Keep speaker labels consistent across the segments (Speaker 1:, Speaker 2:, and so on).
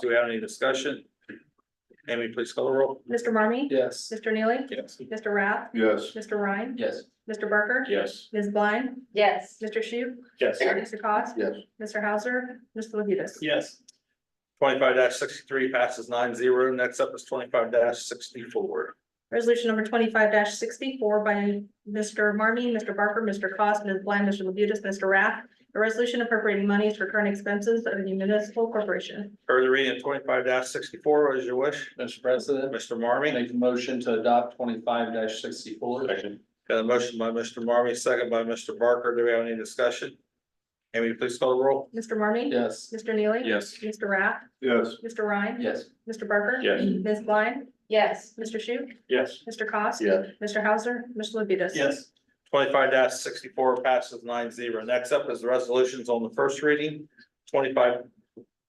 Speaker 1: Do we have any discussion? Amy, please call the roll.
Speaker 2: Mr. Marmy?
Speaker 3: Yes.
Speaker 2: Mr. Neely?
Speaker 1: Yes.
Speaker 2: Mr. Rath?
Speaker 4: Yes.
Speaker 2: Mr. Ryan?
Speaker 3: Yes.
Speaker 2: Mr. Barker?
Speaker 1: Yes.
Speaker 2: Ms. Blind?
Speaker 5: yes,
Speaker 2: Mr. Shu?
Speaker 1: Yes.
Speaker 2: Mr. Cost?
Speaker 4: Yes.
Speaker 2: Mr. Hauser? Mr. Labutus?
Speaker 1: Yes. Twenty-five sixty-three passes nine zero. Next up is twenty-five sixty-four.
Speaker 2: Resolution number twenty-five sixty-four by Mr. Marmy, Mr. Barker, Mr. Cost, Ms. Blind, Mr. Labutus, Mr. Rath. A resolution appropriating monies for current expenses of the municipal corporation.
Speaker 1: Further reading, twenty-five sixty-four, what is your wish?
Speaker 3: Mr. President,
Speaker 1: Mr. Marmy,
Speaker 3: make a motion to adopt twenty-five sixty-four.
Speaker 1: got a motion by Mr. Marmy, second by Mr. Barker. Do we have any discussion? Amy, please call the roll.
Speaker 2: Mr. Marmy?
Speaker 3: Yes.
Speaker 2: Mr. Neely?
Speaker 1: Yes.
Speaker 2: Mr. Rath?
Speaker 4: Yes.
Speaker 2: Mr. Ryan?
Speaker 3: Yes.
Speaker 2: Mr. Barker?
Speaker 1: Yes.
Speaker 2: Ms. Blind?
Speaker 5: yes,
Speaker 2: Mr. Shu?
Speaker 1: Yes.
Speaker 2: Mr. Cost?
Speaker 4: Yes.
Speaker 2: Mr. Hauser? Mr. Labutus?
Speaker 3: Yes.
Speaker 1: Twenty-five sixty-four passes nine zero. Next up is the resolutions on the first reading, twenty-five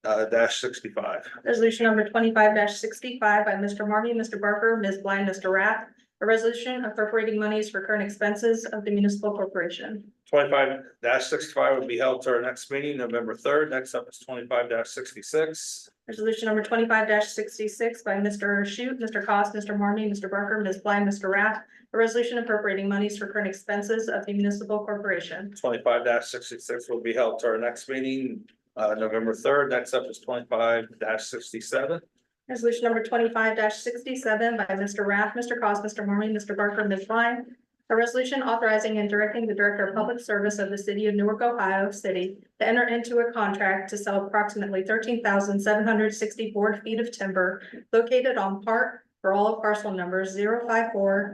Speaker 1: uh, dash sixty-five.
Speaker 2: Resolution number twenty-five sixty-five by Mr. Marmy, Mr. Barker, Ms. Blind, Mr. Rath. A resolution appropriating monies for current expenses of the municipal corporation.
Speaker 1: Twenty-five sixty-five will be held to our next meeting, November third. Next up is twenty-five sixty-six.
Speaker 2: Resolution number twenty-five sixty-six by Mr. Shute, Mr. Cost, Mr. Marmy, Mr. Barker, Ms. Blind, Mr. Rath. A resolution appropriating monies for current expenses of the municipal corporation.
Speaker 1: Twenty-five sixty-six will be held to our next meeting, uh, November third. Next up is twenty-five sixty-seven.
Speaker 2: Resolution number twenty-five sixty-seven by Mr. Rath, Mr. Cost, Mr. Marmy, Mr. Barker, Ms. Blind. A resolution authorizing and directing the Director of Public Service of the City of Newark, Ohio City to enter into a contract to sell approximately thirteen thousand seven hundred sixty board feet of timber located on part for all of parcel numbers 54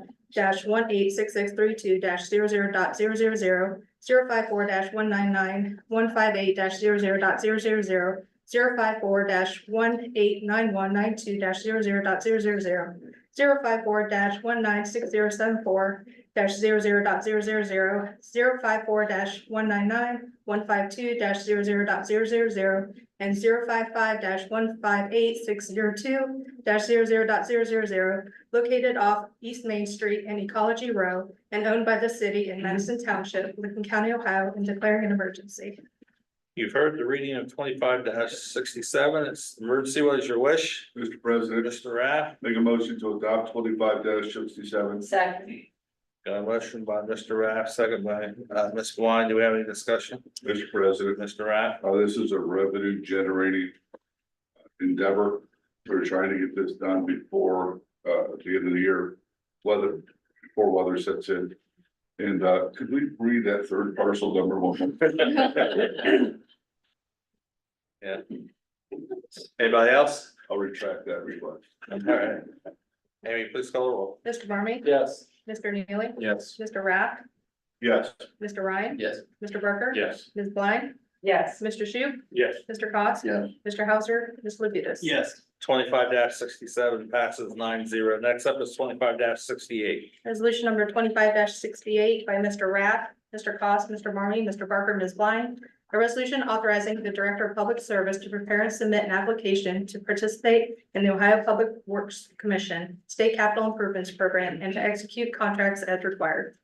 Speaker 2: one eight six six three two 0 zero zero dot zero zero zero, zero five four dash one nine nine, one five eight dash zero zero dot zero zero zero, zero five four dash one eight nine one nine two dash zero zero dot zero zero zero. Zero five four dash one nine six zero seven four dash zero zero dot zero zero zero. Zero five four dash one nine nine one five two dash zero zero dot zero zero zero. And zero five five dash one five eight six zero two dash zero zero dot zero zero zero. Located off East Main Street and Ecology Row and owned by the city in Madison Township, Lincoln County, Ohio, and declaring an emergency.
Speaker 1: You've heard the reading of twenty-five sixty-seven. It's emergency. What is your wish?
Speaker 4: Mr. President,
Speaker 1: Mr. Rath,
Speaker 4: make a motion to adopt twenty-five sixty-seven.
Speaker 5: second,
Speaker 1: got a motion by Mr. Rath, second by, uh, Ms. Blind. Do we have any discussion?
Speaker 4: Mr. President,
Speaker 1: Mr. Rath?
Speaker 4: uh, this is a revenue generating endeavor. We're trying to get this done before, uh, at the end of the year, weather, before weather sets in. And, uh, could we read that third parcel number one?
Speaker 1: Anybody else?
Speaker 4: I'll retract that request.
Speaker 1: All right. Amy, please call the roll.
Speaker 2: Mr. Marmy?
Speaker 3: Yes.
Speaker 2: Mr. Neely?
Speaker 3: Yes.
Speaker 2: Mr. Rath?
Speaker 4: Yes.
Speaker 2: Mr. Ryan?
Speaker 3: Yes.
Speaker 2: Mr. Barker?
Speaker 1: Yes.
Speaker 2: Ms. Blind?
Speaker 5: yes,
Speaker 2: Mr. Shu?
Speaker 1: Yes.
Speaker 2: Mr. Cost?
Speaker 4: Yes.
Speaker 2: Mr. Hauser? Ms. Labutus?
Speaker 3: Yes.
Speaker 1: Twenty-five sixty-seven passes nine zero. Next up is twenty-five sixty-eight.
Speaker 2: Resolution number twenty-five sixty-eight by Mr. Rath, Mr. Cost, Mr. Marmy, Mr. Barker, Ms. Blind. A resolution authorizing the Director of Public Service to prepare and submit an application to participate in the Ohio Public Works Commission State Capital Improvements Program and to execute contracts as required.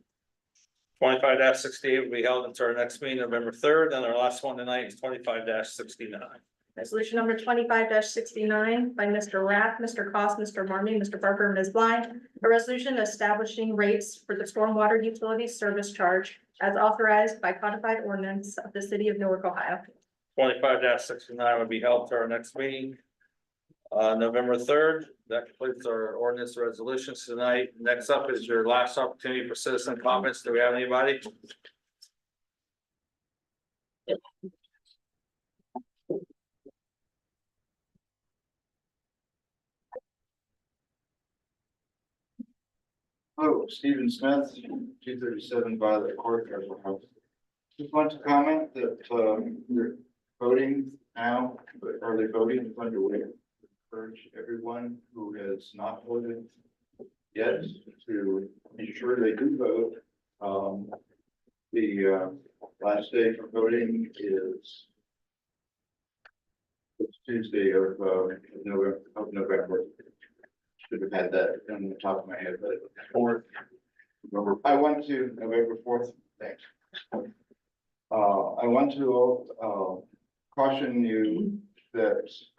Speaker 1: Twenty-five sixty-eight will be held until our next meeting, November third, and our last one tonight is twenty-five sixty-nine.
Speaker 2: Resolution number twenty-five sixty-nine by Mr. Rath, Mr. Cost, Mr. Marmy, Mr. Barker, Ms. Blind. A resolution establishing rates for the stormwater utility service charge as authorized by codified ordinance of the city of Newark, Ohio.
Speaker 1: Twenty-five sixty-nine will be held to our next meeting. Uh, November third, that completes our ordinance resolutions tonight. Next up is your last opportunity for citizen comments. Do we have anybody?
Speaker 6: Hello, Stephen Smith, two thirty-seven by the court. House. Just want to comment that, um, you're voting now, but early voting is underway. Urge everyone who has not voted yet to ensure they do vote. Um, the, uh, last day for voting is it's Tuesday of, uh, November, of November. Should have had that on the top of my head, but fourth. November, I want to, November fourth, thanks. Uh, I want to, uh, caution you that